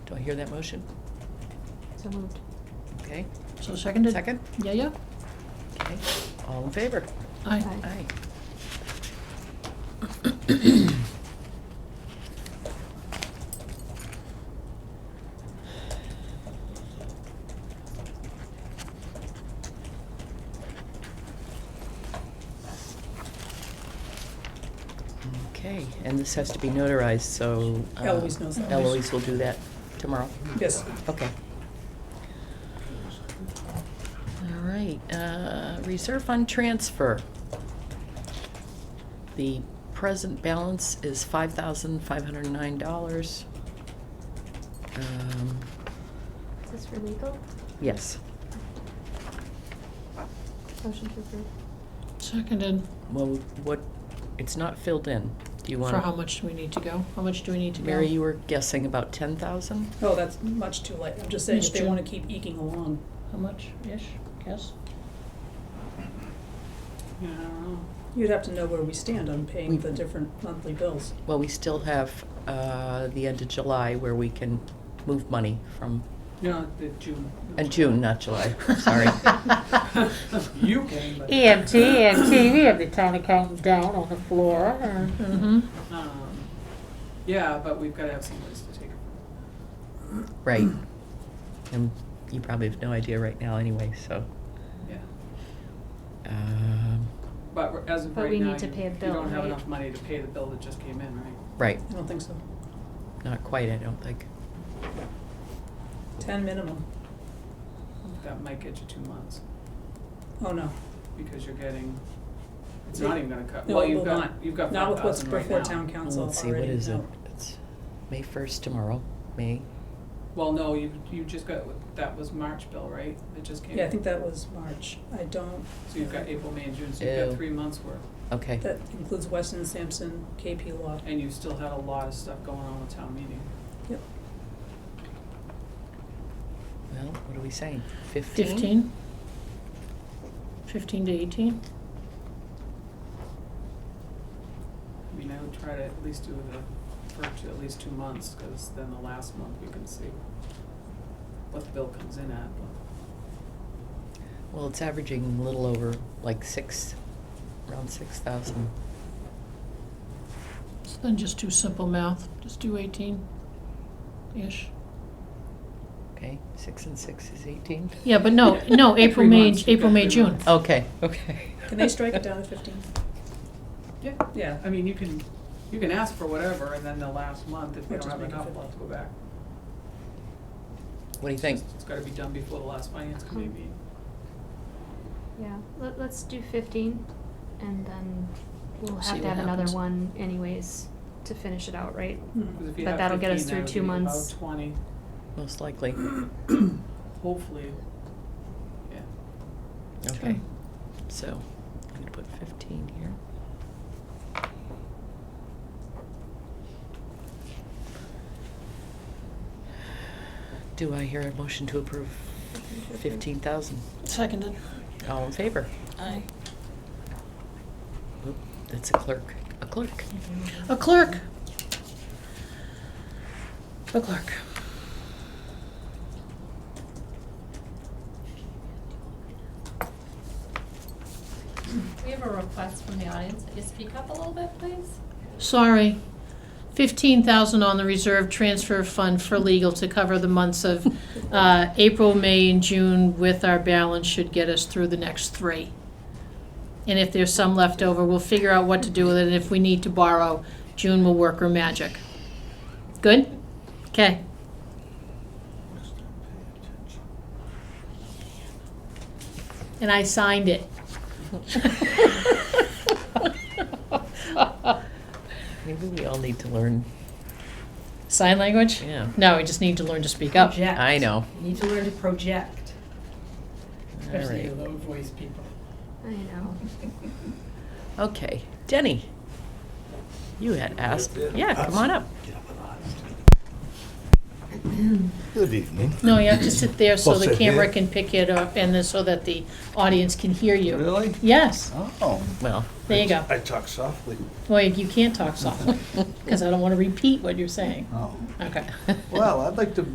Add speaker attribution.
Speaker 1: I hear that motion?
Speaker 2: So moved.
Speaker 1: Okay,
Speaker 3: So seconded?
Speaker 1: second?
Speaker 3: Yeah, yeah.
Speaker 1: Okay, all in favor?
Speaker 3: Aye.
Speaker 2: Aye.
Speaker 1: Aye. Okay, and this has to be notarized, so. uh,
Speaker 4: Eloise knows that.
Speaker 1: Eloise will do that tomorrow.
Speaker 4: Yes.
Speaker 1: Okay. All right, uh, reserve fund transfer. The present balance is five thousand five hundred and nine dollars. Um,
Speaker 2: Is this for legal?
Speaker 1: yes,
Speaker 2: Motion to approve.
Speaker 3: Seconded.
Speaker 1: well, what, it's not filled in. Do you want?
Speaker 3: For how much do we need to go? How much do we need to go?
Speaker 1: Mary, you were guessing about ten thousand?
Speaker 4: No, Oh, that's much too late. I'm just saying, if
Speaker 3: It's
Speaker 4: they
Speaker 3: true.
Speaker 4: want to keep eking along.
Speaker 3: How much-ish, guess?
Speaker 4: I don't know. You'd have to know where we stand on paying the different monthly bills.
Speaker 1: Well, we still have, uh, the end of July where we can move money from,
Speaker 5: No, the June.
Speaker 1: and June, not July, sorry.
Speaker 5: You can, but.
Speaker 6: EMT, EMT, we have the town accountant down on the floor. uh,
Speaker 3: Mm-hmm.
Speaker 5: Um, Yeah, but we've gotta have some place to take it. from.
Speaker 1: Right. And you probably have no idea right now anyway, so.
Speaker 5: Yeah,
Speaker 1: Um,
Speaker 5: but r- as of
Speaker 2: But
Speaker 5: right
Speaker 2: we
Speaker 5: now,
Speaker 2: need to
Speaker 5: you-
Speaker 2: pay a
Speaker 5: you
Speaker 2: bill,
Speaker 5: don't have
Speaker 2: right?
Speaker 5: enough money to pay the bill that just came in, right?
Speaker 1: right,
Speaker 4: I don't think so.
Speaker 1: not quite, I don't think.
Speaker 4: Ten minimum.
Speaker 5: That might get you two months,
Speaker 4: Oh, no.
Speaker 5: because you're getting, it's not even gonna cut,
Speaker 4: No,
Speaker 5: well,
Speaker 4: it
Speaker 5: you've
Speaker 4: will
Speaker 5: got, you've got
Speaker 4: Not
Speaker 5: five
Speaker 4: with what's
Speaker 5: thousand right
Speaker 4: before
Speaker 5: now.
Speaker 4: town
Speaker 1: Well,
Speaker 4: council
Speaker 1: Let's see, what
Speaker 4: already,
Speaker 1: is it?
Speaker 4: no.
Speaker 1: It's May first tomorrow, May,
Speaker 5: Well, no, you, you just got, that was March bill, right? It just came in.
Speaker 4: Yeah, I think that was March. I don't,
Speaker 5: So you've got April, May, and June, so you've
Speaker 1: Ew.
Speaker 5: got three months worth,
Speaker 1: okay.
Speaker 4: that includes Weston, Sampson, KP Law.
Speaker 5: and you still had a lot of stuff going on with town meeting.
Speaker 4: Yep.
Speaker 1: Well, what are we saying? Fifteen?
Speaker 3: Fifteen? Fifteen to eighteen?
Speaker 5: I mean, I would try to at least do the, for two- at least two months, because then the last month we can see what the bill comes in at.
Speaker 1: Well, it's averaging a little over like six, around six thousand.
Speaker 3: So then just do simple math, just do eighteen-ish.
Speaker 1: Okay, six and six is eighteen?
Speaker 3: Yeah, but no, no, April,
Speaker 5: Three
Speaker 3: May,
Speaker 5: months, you've
Speaker 3: April,
Speaker 5: got
Speaker 3: May,
Speaker 5: three
Speaker 3: June.
Speaker 5: months.
Speaker 1: Okay, okay.
Speaker 4: Can they strike it down to fifteen?
Speaker 5: Yeah,
Speaker 4: Yeah.
Speaker 5: I mean, you can, you can ask for whatever, and then the last month, if we
Speaker 4: Or
Speaker 5: don't
Speaker 4: just
Speaker 5: have
Speaker 4: make it
Speaker 5: enough,
Speaker 4: fifty.
Speaker 5: we'll have to go back.
Speaker 1: What do you think?
Speaker 5: It's gotta be done before the last finance
Speaker 2: Uh-huh.
Speaker 5: committee meeting.
Speaker 2: Yeah, let, let's do fifteen and then we'll
Speaker 1: See
Speaker 2: have to
Speaker 1: what
Speaker 2: have another
Speaker 1: happens.
Speaker 2: one anyways to finish it out, right?
Speaker 4: Hmm.
Speaker 5: 'Cause if you
Speaker 2: But
Speaker 5: have
Speaker 2: that'll get us
Speaker 5: 15,
Speaker 2: through
Speaker 5: that would
Speaker 2: two
Speaker 5: be about
Speaker 2: months.
Speaker 5: Twenty,
Speaker 1: Most likely,
Speaker 5: hopefully, yeah.
Speaker 1: okay. So, I'm gonna put fifteen here. Do I hear a motion to approve fifteen thousand?
Speaker 3: Seconded.
Speaker 1: All in favor?
Speaker 3: Aye.
Speaker 1: Oop, That's a clerk, a clerk.
Speaker 3: A clerk. A clerk.
Speaker 7: We have a request from the audience. Could you speak up a little bit, please?
Speaker 3: Sorry. Fifteen thousand on the reserve transfer fund for legal to cover the months of, uh, April, May, and June with our balance should get us through the next three. And if there's some left over, we'll figure out what to do with it, and if we need to borrow, June will work her magic. Good? Okay. And I signed it.
Speaker 1: Maybe we all need to learn,
Speaker 3: Sign language?
Speaker 1: yeah.
Speaker 3: No, we just need to learn to speak up.
Speaker 8: Project.
Speaker 1: I know.
Speaker 8: You Need to learn to project,
Speaker 1: All
Speaker 8: especially
Speaker 1: right.
Speaker 8: you low voice people.
Speaker 2: I know.
Speaker 1: Okay, Denny. You had asked, yeah, come on up.
Speaker 9: Good evening.
Speaker 3: No, you have to sit there so
Speaker 9: Well,
Speaker 3: the
Speaker 9: sit
Speaker 3: camera
Speaker 9: here.
Speaker 3: can pick it up and then so that the audience can hear you.
Speaker 9: Really?
Speaker 3: Yes,
Speaker 9: Oh.
Speaker 1: Well,
Speaker 3: there you go.
Speaker 9: I talk softly.
Speaker 3: Well, you can't talk softly because I don't want to repeat what you're saying.
Speaker 9: Oh.
Speaker 3: Okay.
Speaker 9: Well, I'd like to